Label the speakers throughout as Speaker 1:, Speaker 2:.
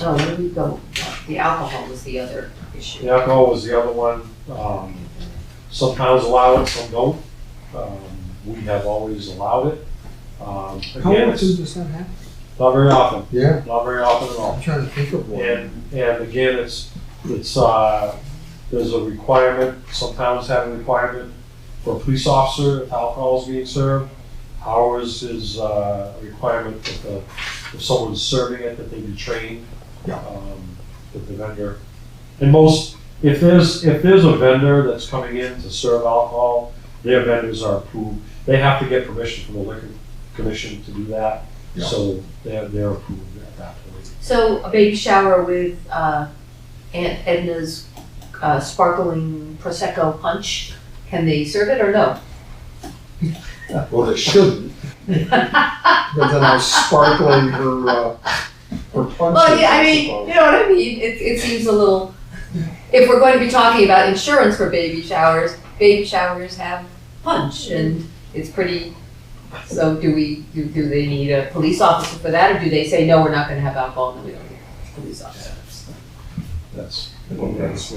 Speaker 1: Oh, there you go. The alcohol was the other issue.
Speaker 2: The alcohol was the other one. Um, Some towns allow it, some don't. Um, We have always allowed it. Um,
Speaker 3: How
Speaker 2: Again,
Speaker 3: often
Speaker 2: it's
Speaker 3: does that happen?
Speaker 2: not very often,
Speaker 3: Yeah,
Speaker 2: not very often at all.
Speaker 3: I'm trying to think of one.
Speaker 2: And, and again, it's, it's, uh, there's a requirement, some towns have a requirement for a police officer if alcohol is being served. Ours is uh, a requirement that the, if someone's serving it, that they be trained.
Speaker 3: Yeah.
Speaker 2: um, That the vendor, and most, if there's, if there's a vendor that's coming in to serve alcohol, their vendors are approved. They have to get permission from the liquor commission to do that,
Speaker 3: Yeah.
Speaker 2: so they're, they're approved at that point.
Speaker 1: So a baby shower with uh, Aunt Edna's uh, sparkling prosecco punch. Can they serve it or no?
Speaker 3: Well, they shouldn't. But then I was sparkling her, uh, her punches.
Speaker 1: Well, yeah, I mean,
Speaker 3: suppose.
Speaker 1: you know what I mean. It, it seems a little. If we're going to be talking about insurance for baby showers, baby showers have punch, and it's pretty. So do we? Do, do they need a police officer for that, or do they say no? We're not going to have alcohol, and we don't need police officers.
Speaker 2: That's.
Speaker 3: that's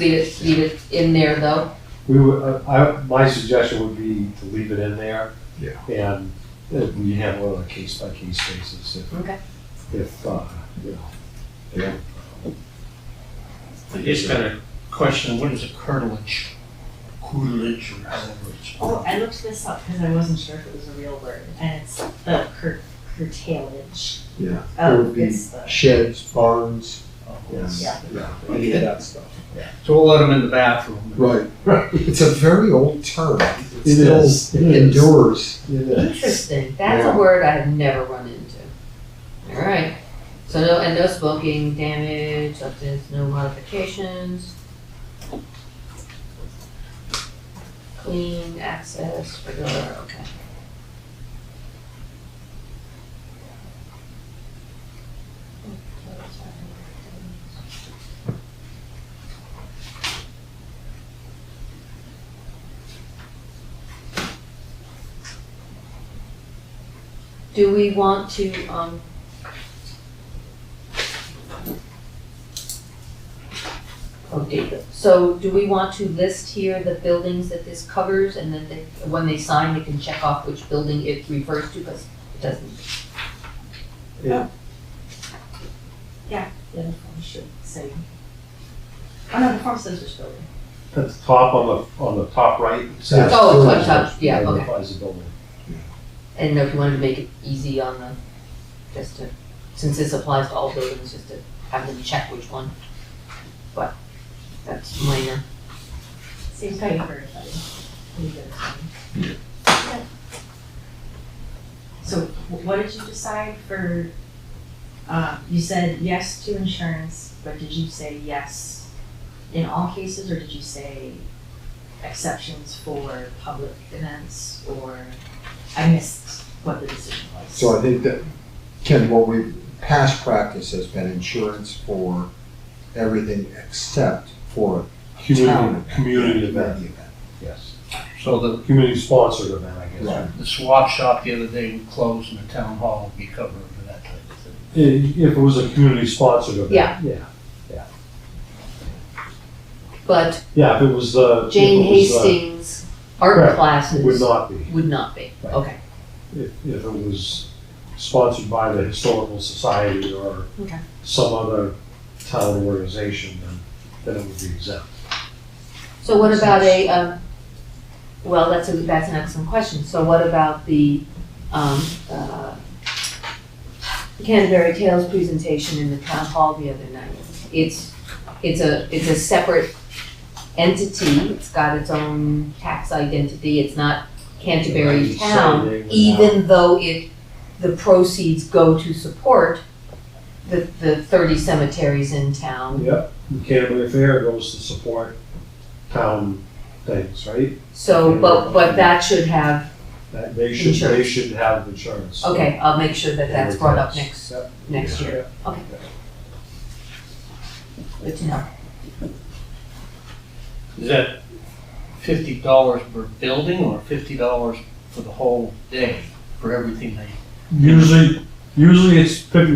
Speaker 1: Leave it. Leave it in there though.
Speaker 2: We would, uh, I, my suggestion would be to leave it in there.
Speaker 3: Yeah.
Speaker 2: And uh, we handle it on a case by case basis if.
Speaker 1: Okay.
Speaker 2: If, uh, you know.
Speaker 4: I just got a question, what is a curtilage? Curtilage or however it's.
Speaker 5: Oh, I looked this up because I wasn't sure if it was a real word, and it's the cur- curtailage.
Speaker 3: Yeah. It would
Speaker 5: Oh,
Speaker 3: be
Speaker 5: it's the.
Speaker 3: Sheds, barns,
Speaker 2: Yes.
Speaker 5: Yeah.
Speaker 3: yeah, any of that stuff.
Speaker 4: So we'll let them in the bathroom.
Speaker 3: Right. It's a very old term.
Speaker 2: It
Speaker 3: still
Speaker 2: is, it is.
Speaker 3: Endures.
Speaker 2: Yeah.
Speaker 1: Interesting. That's
Speaker 3: Yeah.
Speaker 1: a word I have never run into. All right. So no, and no smoking, damage, substance, no modifications. Clean access, regular. Okay. Do we want to, um, oh, David, so do we want to list here the buildings that this covers and then they, when they sign, they can check off which building it refers to, because it doesn't.
Speaker 5: The uniform should say. Oh no, the form says which building.
Speaker 2: At the top on the, on the top right.
Speaker 3: Yeah.
Speaker 1: Oh, it's on top, yeah, okay.
Speaker 2: Identifies the building.
Speaker 1: And if you wanted to make it easy on the, just to, since this applies to all buildings, just to have them check which one. But that's minor.
Speaker 5: Seems kind of for everybody. You get it. So wh- what did you decide for, uh, you said yes to insurance, but did you say yes in all cases, or did you say exceptions for public events, or, I missed what the decision was?
Speaker 3: So I think that, Ken, what we, past practice has been insurance for everything except for a town.
Speaker 2: Community, community event,
Speaker 3: event.
Speaker 2: yes.
Speaker 4: So the,
Speaker 2: Community sponsored event, I guess.
Speaker 3: Right.
Speaker 4: the swap shop the other day would close and the town hall would be covered for that type of thing.
Speaker 2: I- If, it was a community sponsored event.
Speaker 1: Yeah.
Speaker 2: Yeah,
Speaker 1: But
Speaker 2: yeah, if it was the. if
Speaker 1: Jane
Speaker 2: it was the-
Speaker 1: Hastings art
Speaker 2: correct,
Speaker 1: classes.
Speaker 2: Would not be,
Speaker 1: Would not be,
Speaker 2: Right.
Speaker 1: okay.
Speaker 2: if, if it was sponsored by the historical society or
Speaker 1: Okay.
Speaker 2: some other town organization, then, then it would be exempt.
Speaker 1: So what about a, um, well, that's a, that's an excellent question. So what about the, um, uh, Canterbury Tales presentation in the town hall the other night? It's, it's a, it's a separate entity. It's got its own tax identity. It's not Canterbury
Speaker 2: Right, so
Speaker 1: Town,
Speaker 2: they would
Speaker 1: even though it, the proceeds go to support the, the thirty cemeteries in town.
Speaker 2: Yep, the Canterbury Fair goes to support town things, right?
Speaker 1: So, but, but that should have,
Speaker 2: That they should, they
Speaker 1: Insurance.
Speaker 2: should have insurance.
Speaker 1: okay, I'll make sure that that's brought up
Speaker 2: Yep.
Speaker 1: next, next year. Okay. Good to know.
Speaker 4: Is that fifty dollars per building or fifty dollars for the whole day, for everything they
Speaker 2: Usually, usually it's fifty